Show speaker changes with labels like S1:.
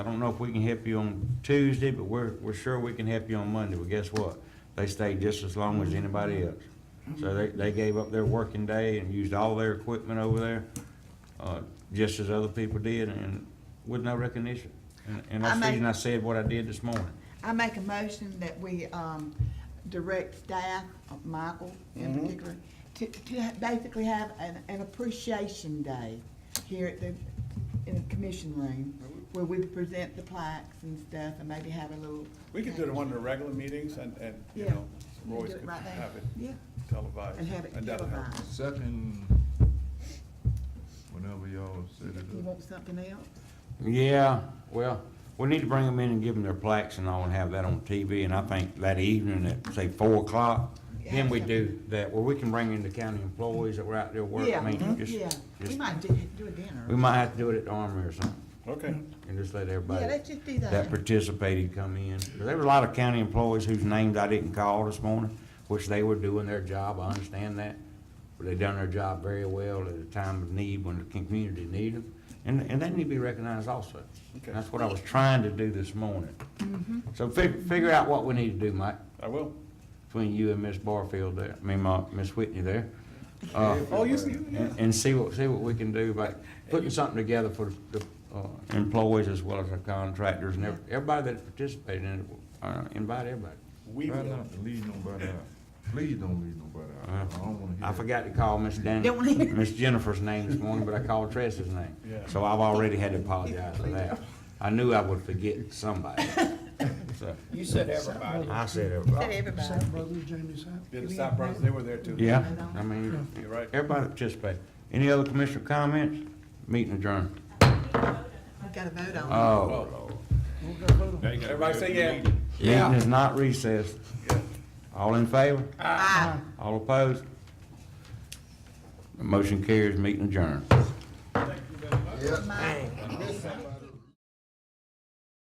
S1: I don't know if we can help you on Tuesday, but we're, we're sure we can help you on Monday. Well, guess what? They stayed just as long as anybody else. So they, they gave up their working day and used all their equipment over there, uh, just as other people did and with no recognition. And- And that's the
S2: I may-
S1: reason I said what I did this morning.
S2: I make a motion that we, um, direct staff, uh, Michael in
S3: Mm-hmm.
S2: particular, to, to ha- basically have an, an appreciation day here at the, in the commission room, where we present the plaques and stuff, and maybe have a little.
S3: We could do it in one of the regular meetings and, and, you
S2: Yeah.
S3: know,
S2: We could
S3: Roy's
S2: do it
S3: could
S2: right there.
S3: have it
S2: Yeah,
S3: televised.
S2: and have it
S3: that'll help.
S2: televised.
S4: Set in, whenever y'all set
S2: You
S4: it up.
S2: want something else?
S1: Yeah, well, we need to bring them in and give them their plaques and all and have that on TV. And I think that evening at, say, four o'clock, then we do that, where we can bring in the county employees that were out there working.
S2: Yeah, Mm-hmm.
S1: I mean, just-
S2: yeah, we
S1: just-
S2: might do, do a
S1: We
S2: dinner.
S1: might have to do it at the Armory or something,
S3: Okay,
S1: and just let
S2: Yeah,
S1: everybody
S2: let's just do
S1: that
S2: that.
S1: participated come in. There were a lot of county employees whose names I didn't call this morning, which they were doing their job, I understand that. But they done their job very well at a time of need when the community needed them, and, and they need to be recognized also.
S3: Okay.
S1: That's what I was trying to do this morning. So fig- figure out what we need to do, Mike,
S3: I will.
S1: between you and Miss Barfield there, I mean, my, Miss Whitney there. Uh,
S3: Oh, you, you, yeah.
S1: and, and see what, see what we can do by putting something together for the uh, employees as well as our contractors and ev- everybody that participated in it, uh, invite everybody.
S3: We
S4: Try
S3: will.
S4: not to leave nobody out. Please don't leave nobody
S1: Uh,
S4: out. I don't wanna hear.
S1: I forgot to call Miss Dan,
S2: Don't leave.
S1: Miss Jennifer's name this morning, but I called Tressa's name.
S3: Yeah.
S1: So I've already had to apologize for that. I knew I would forget somebody. So,
S5: You said everybody.
S1: I said
S2: Said
S1: everybody.
S2: everybody.
S6: Sapp Brothers, Jamie's house.
S3: Yeah, the Sapp brothers, they were there too.
S1: Yeah, I mean,
S3: You're right.
S1: everybody participated. Any other commissioner comments? Meeting adjourned.
S2: We gotta vote on it.
S1: Oh, Lord.
S6: We'll go vote on it.
S3: Everybody say yeah.
S1: Meeting is not recessed.
S3: Yeah.
S1: All in favor?
S2: Aye.
S1: All opposed? The Motion carries, meeting adjourned.
S4: Yeah.
S2: Mike.